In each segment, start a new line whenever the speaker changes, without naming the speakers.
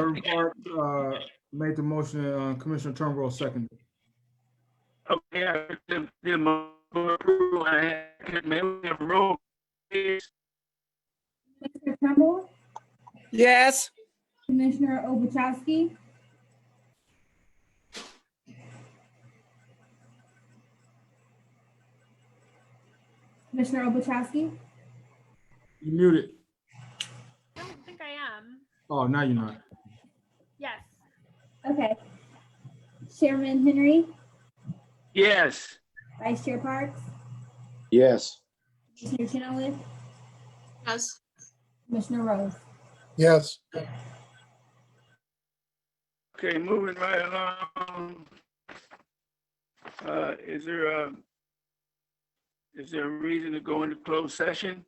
Chairman Clark, uh, made the motion, uh, Commissioner Turnbull seconded.
Okay, I did, did my approval, I had, could maybe have roll, please.
Commissioner Turnbull,
Yes.
Commissioner Obuchowski, Commissioner Obuchowski,
You muted.
I don't think I am.
Oh, now you're not.
Yes.
okay. Chairman Henry,
Yes,
Vice Chair Parks,
Yes.
Commissioner Chenoweth,
yes.
Commissioner Rose.
yes.
okay, moving right along. Uh, is there a, is there a reason to go into closed session?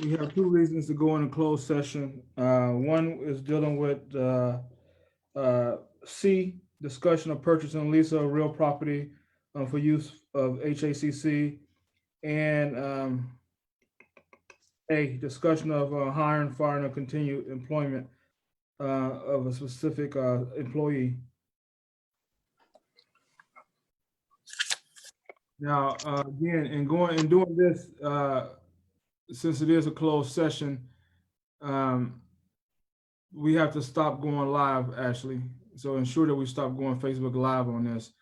We have two reasons to go into closed session. Uh, one is dealing with, uh, uh, C, discussion of purchase and lease of real property, uh, for use of HACC. And, um, A, discussion of uh, hiring, firing, or continued employment, uh, of a specific, uh, employee. Now, uh, again, in going, in doing this, uh, since it is a closed session, um, we have to stop going live, Ashley. So ensure that we stop going Facebook Live on this.